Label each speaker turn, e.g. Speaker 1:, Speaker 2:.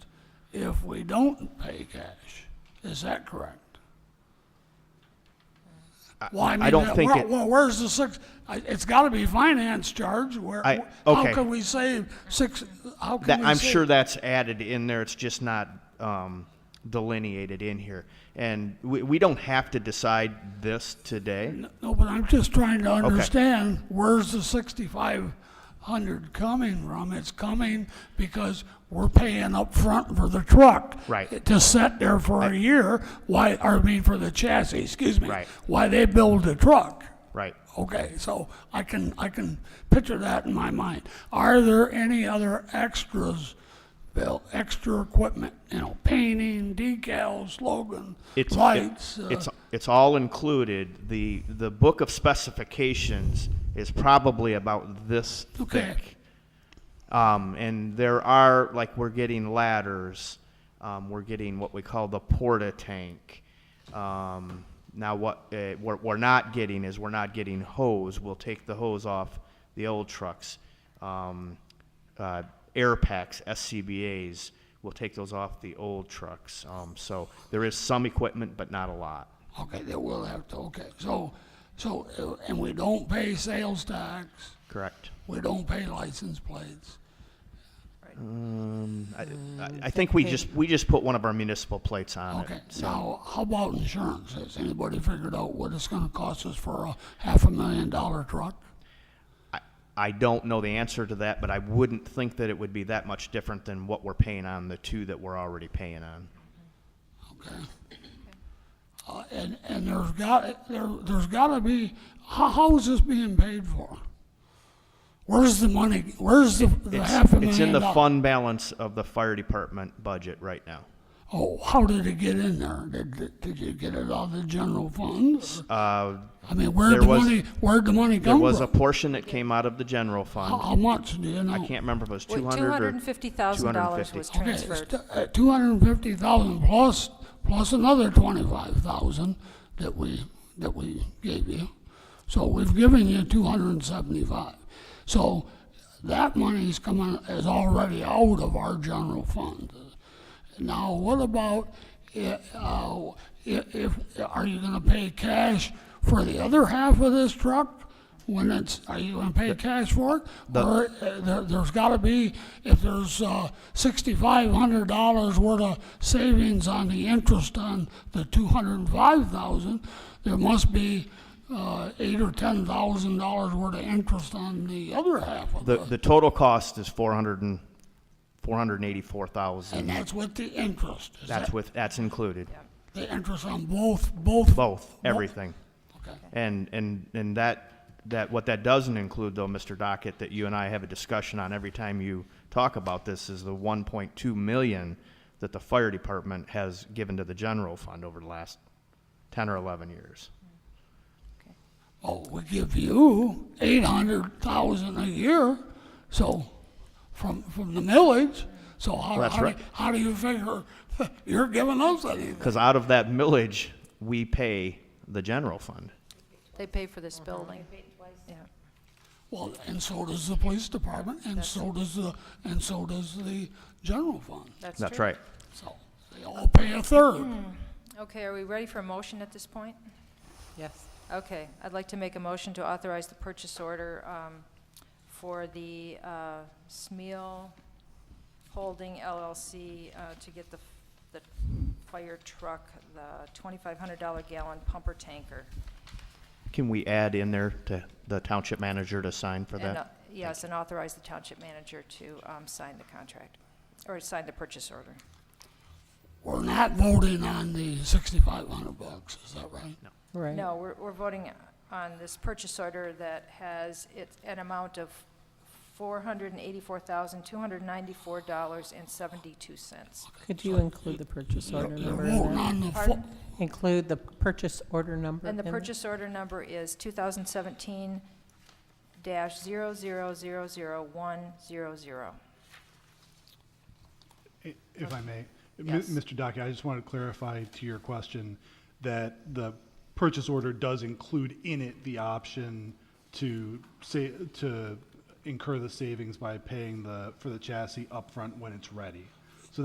Speaker 1: if we don't pay cash. Is that correct? Well, I mean,
Speaker 2: don't
Speaker 1: that-
Speaker 2: think
Speaker 1: where-
Speaker 2: it-
Speaker 1: Well, where's the six, I- it's gotta be finance charge, where,
Speaker 2: I-
Speaker 1: how
Speaker 2: okay.
Speaker 1: can we save six, how can
Speaker 2: That,
Speaker 1: we
Speaker 2: I'm
Speaker 1: save-
Speaker 2: sure that's added in there. It's just not um, delineated in here. And we, we don't have to decide this today.
Speaker 1: No, but I'm just trying to understand, where's the sixty-five hundred coming from? It's coming because we're paying up front for the truck.
Speaker 2: Right.
Speaker 1: To sit there for a year, why, or I mean, for the chassis, excuse me.
Speaker 2: Right.
Speaker 1: Why they build the truck.
Speaker 2: Right.
Speaker 1: Okay, so I can, I can picture that in my mind. Are there any other extras, Bill, extra equipment, you know, painting, decals, slogan,
Speaker 2: It's
Speaker 1: lights? uh,
Speaker 2: It's it's all included. The the book of specifications is probably about this
Speaker 1: Okay.
Speaker 2: thick. Um, and there are like we're getting ladders. Um, we're getting what we call the porta tank. Um, now what uh, we're, we're not getting is we're not getting hose. We'll take the hose off the old trucks. Um, uh, air packs, SCBA's. We'll take those off the old trucks. Um, so there is some equipment, but not a lot.
Speaker 1: Okay, they will have to, okay, so, so, uh, and we don't pay sales tax,
Speaker 2: Correct.
Speaker 1: we don't pay license plates.
Speaker 2: I, I, I think we just we just put one of our municipal plates on
Speaker 1: Okay,
Speaker 2: it.
Speaker 1: now, how about insurance? Has anybody figured out what it's gonna cost us for a half a million dollar truck?
Speaker 2: I, I don't know the answer to that, but I wouldn't think that it would be that much different than what we're paying on the two that we're already paying on.
Speaker 1: Okay. Uh, and, and there's got, there, there's gotta be, how, how is this being paid for? Where's the money, where's the, the
Speaker 2: It's,
Speaker 1: half a million?
Speaker 2: it's in the
Speaker 1: doll-
Speaker 2: fund balance of the fire department budget right now.
Speaker 1: Oh, how did it get in there? Did, did- did you get it out of the general funds?
Speaker 2: Uh,
Speaker 1: I mean, where'd
Speaker 2: There
Speaker 1: the
Speaker 2: was-
Speaker 1: money, where'd the money
Speaker 2: there
Speaker 1: come
Speaker 2: was a
Speaker 1: from?
Speaker 2: portion that came out of the general
Speaker 1: How,
Speaker 2: fund.
Speaker 1: how much do you know?
Speaker 2: I can't remember if it was
Speaker 3: Wait,
Speaker 2: two hundred or
Speaker 3: $250,000 was
Speaker 1: Okay, uh,
Speaker 3: transferred.
Speaker 1: two hundred and fifty thousand plus plus another twenty-five thousand that we that we gave you. So we've given you two hundred and seventy-five. So that money is coming is already out of our general fund. Now, what about i- uh, i- if are you going to pay cash for the other half of this truck? When it's, are you going to pay cash for it? Or uh, there, there's got to be, if there's uh, $6,500 worth of savings on the interest on the 205,000, there must be uh, eight or $10,000 worth of interest on the other half of
Speaker 2: The,
Speaker 1: it.
Speaker 2: the total cost is four hundred and, four hundred and eighty-four thousand.
Speaker 1: And that's with the interest. Is
Speaker 2: That's
Speaker 1: that
Speaker 2: with, that's included.
Speaker 1: the interest on both, both?
Speaker 2: Both, everything.
Speaker 1: Okay.
Speaker 2: And, and, and that, that, what that doesn't include though, Mr. Dockett, that you and I have a discussion on every time you talk about this is the one point two million that the fire department has given to the general fund over the last ten or eleven years.
Speaker 1: Oh, we give you eight hundred thousand a year, so, from, from the millage, so how,
Speaker 2: That's
Speaker 1: how, do you-
Speaker 2: right.
Speaker 1: how do you figure, you're giving us anything?
Speaker 2: Cause out of that millage, we pay the general fund.
Speaker 3: They pay for this building. Yeah.
Speaker 1: Well, and so does the police department, and so does the, and so does the general fund,
Speaker 2: That's
Speaker 3: true.
Speaker 2: right.
Speaker 1: so, they all pay a third.
Speaker 3: Okay, are we ready for a motion at this point?
Speaker 4: Yes.
Speaker 3: Okay, I'd like to make a motion to authorize the purchase order um, for the uh, Smeal Holding LLC uh, to get the, the fire truck, the $2,500 gallon pumper tanker.
Speaker 2: Can we add in there to the township manager to sign for
Speaker 3: And, uh,
Speaker 2: that?
Speaker 3: Yes, and authorize the township manager to um, sign the contract, or sign the purchase order.
Speaker 1: We're not voting on the sixty-five hundred bucks, is that right? No.
Speaker 4: Right.
Speaker 3: No, we're, we're voting on this purchase order that has it, an amount of four hundred and eighty-four thousand, two hundred and ninety-four dollars and seventy-two cents.
Speaker 4: Could you include the purchase order
Speaker 1: You're
Speaker 4: number? in
Speaker 1: voting
Speaker 4: there?
Speaker 1: on the, fu-
Speaker 3: Pardon?
Speaker 4: Include the purchase order number?
Speaker 3: And the
Speaker 4: in there?
Speaker 3: purchase order number is two thousand seventeen dash zero zero zero zero one zero zero.
Speaker 5: I- If I may, M-
Speaker 3: Yes.
Speaker 5: Mr. Dockey, I just want to clarify to your question that the purchase order does include in it the option to say, to incur the savings by paying the, for the chassis upfront when it's ready.